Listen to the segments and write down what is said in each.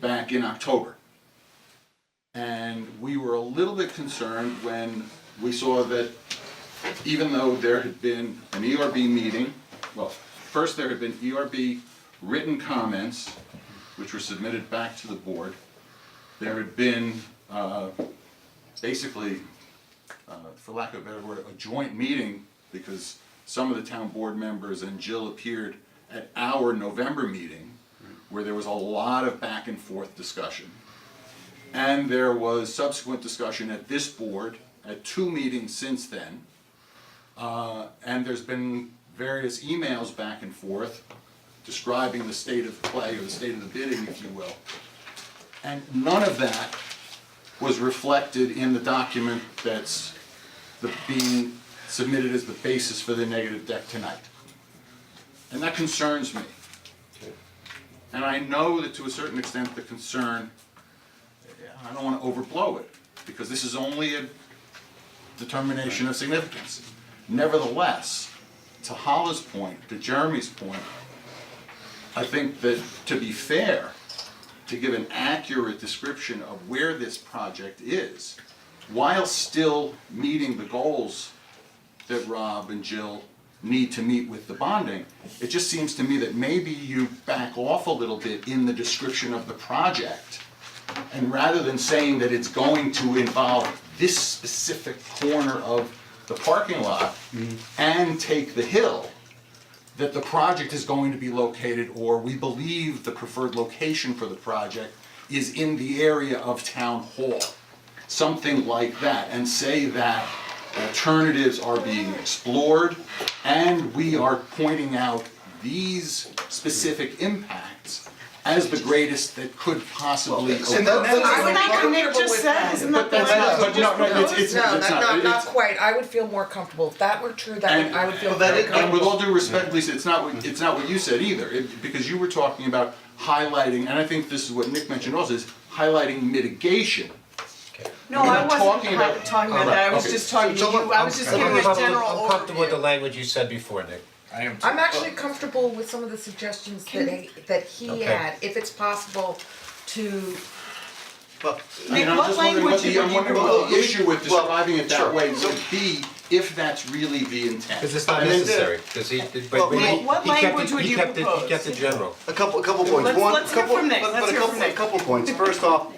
back in October. And we were a little bit concerned when we saw that even though there had been an ERB meeting, well, first there had been ERB written comments, which were submitted back to the board. There had been, uh, basically, uh, for lack of a better word, a joint meeting, because some of the town board members and Jill appeared at our November meeting, where there was a lot of back and forth discussion. And there was subsequent discussion at this board, at two meetings since then. Uh, and there's been various emails back and forth describing the state of play or the state of the bidding, if you will. And none of that was reflected in the document that's the, being submitted as the basis for the negative deck tonight. And that concerns me. And I know that to a certain extent, the concern, I don't wanna overblow it, because this is only a determination of significance. Nevertheless, to Hollis' point, to Jeremy's point, I think that to be fair, to give an accurate description of where this project is while still meeting the goals that Rob and Jill need to meet with the bonding. It just seems to me that maybe you back off a little bit in the description of the project. And rather than saying that it's going to involve this specific corner of the parking lot and take the hill, that the project is going to be located, or we believe the preferred location for the project is in the area of town hall. Something like that, and say that alternatives are being explored, and we are pointing out these specific impacts as the greatest that could possibly occur. And that- that's- Isn't that what Nick just said, isn't that But the that's not, but no, no, it's, it's, it's No, not, that's not, not it's- quite, I would feel more comfortable, if that were true, that would, I would feel And- Well, that very is- comfortable. And with all due respect, Lisa, it's not, what- it's not what you said either, it, because you were talking about highlighting, and I think this is what Nick mentioned also, is highlighting mitigation. No, We're I not wasn't talking about- Oh, hi- talking about that, I was okay. just talking to So- so you, I was just I'm- giving a I'm- general I'm comfortable with the overview. language you said before, Nick. I am I'm actually comfortable with some of the suggestions that he, that he Okay. had, if it's possible to, Well, I mean, Nick, I'm what just wondering language what the, would I'm you wondering what the propose? issue with Well, describing it sure. that way would be, if that's really the intent. Because it's not And then- necessary, because he, but- but Well, he, what he kept language it, would he you kept it, he propose? kept it general. a couple, a couple points. Let's- One, let's hear couple, from Nick. but- Let's but a hear couple, from Nick. a couple points. First off,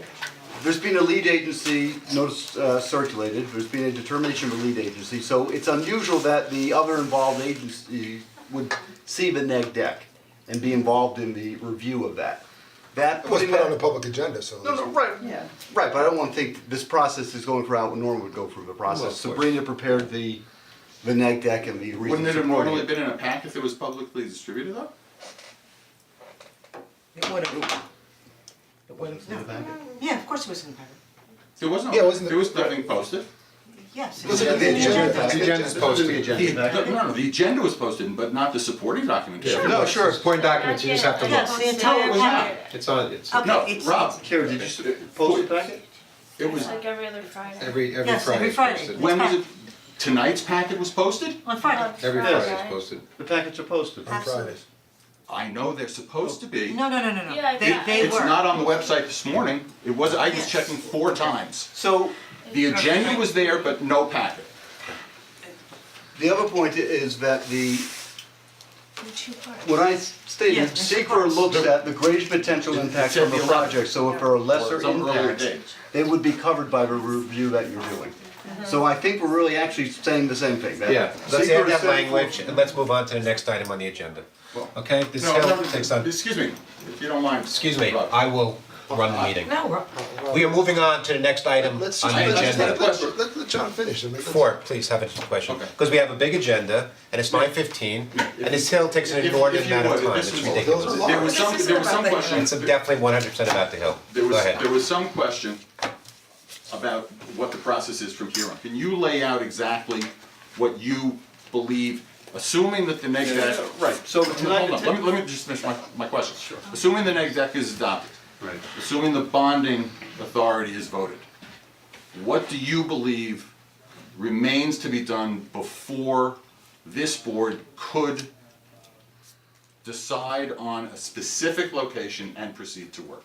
there's been a lead agency notice uh, circulated. There's been a determination of a lead agency, so it's unusual that the other involved agency would see the neg deck and be involved in the review of that. That It was putting put that- on the public agenda, so. No, no, right, Yeah. right, but I don't wanna think this process is going throughout what Norm would go through the Well, process. of course. Sabrina prepared the, the neg deck and the reasons Wouldn't it have supporting normally been in a pack if it was publicly distributed though? it would have. It would have, no, Yeah, of course it was in the paper, There was no, Yeah, wasn't it- there was nothing posted. yes. Listen to the agenda. The agenda's It's in the agenda. The- No, no, the agenda was posted, but not the supporting documentation. No, sure. It's point documents, you just have to Yes, look. the entire was not. packet. It's on, it's Okay. No, it's- Rob, Karen, did you s- post the packet? it was, Like every other Friday. every, every Friday. Yes, every it's Friday. posted. when was it, tonight's packet was posted? On On Friday. Every Friday. Friday it's posted. The packets are posted. On Fridays. I know they're supposed to be. No, no, no, no, no, Yeah, they, yeah. they It's were. not on the website this morning, it was, I was Yes. checking four times. So, The agenda was there, but no packet. the other point i- is that the, The two parts. what I s- stated, Yes, Mr. SECR Cox. looks at the greatest potential impact said of a the project, so if there are lesser Or some earlier impacts, date. they would be covered by the review that you're doing. Mm-hmm. So I think we're really actually saying the same thing, that Yeah, let's SECR add that said- language and let's move on to the next item on the agenda. Okay, this is No, how, no, thanks, Don. excuse me, if you don't mind. excuse me, Rob. I will run the meeting. no, we're- We are moving on to the next item on the Let's agenda. just, let's, let let's, let let John finish. I mean, let's- Four, please have a question, Okay. because we have a big agenda, and it's nine fifteen, and this hill takes an If- if inordinate you amount of would, time, this it's was- ridiculous. Those are There was This some, isn't there was some about that. question. It's definitely one hundred percent about the hill, There go was, ahead. there was some question about what the process is from here on. Can you lay out exactly what you believe, assuming that the neg deck? Right, so Hold on, tonight, let me, let me just finish my, my question. Sure. Assuming the neg deck is adopted, Right. assuming the bonding authority is voted, what do you believe remains to be done before this board could decide on a specific location and proceed to work?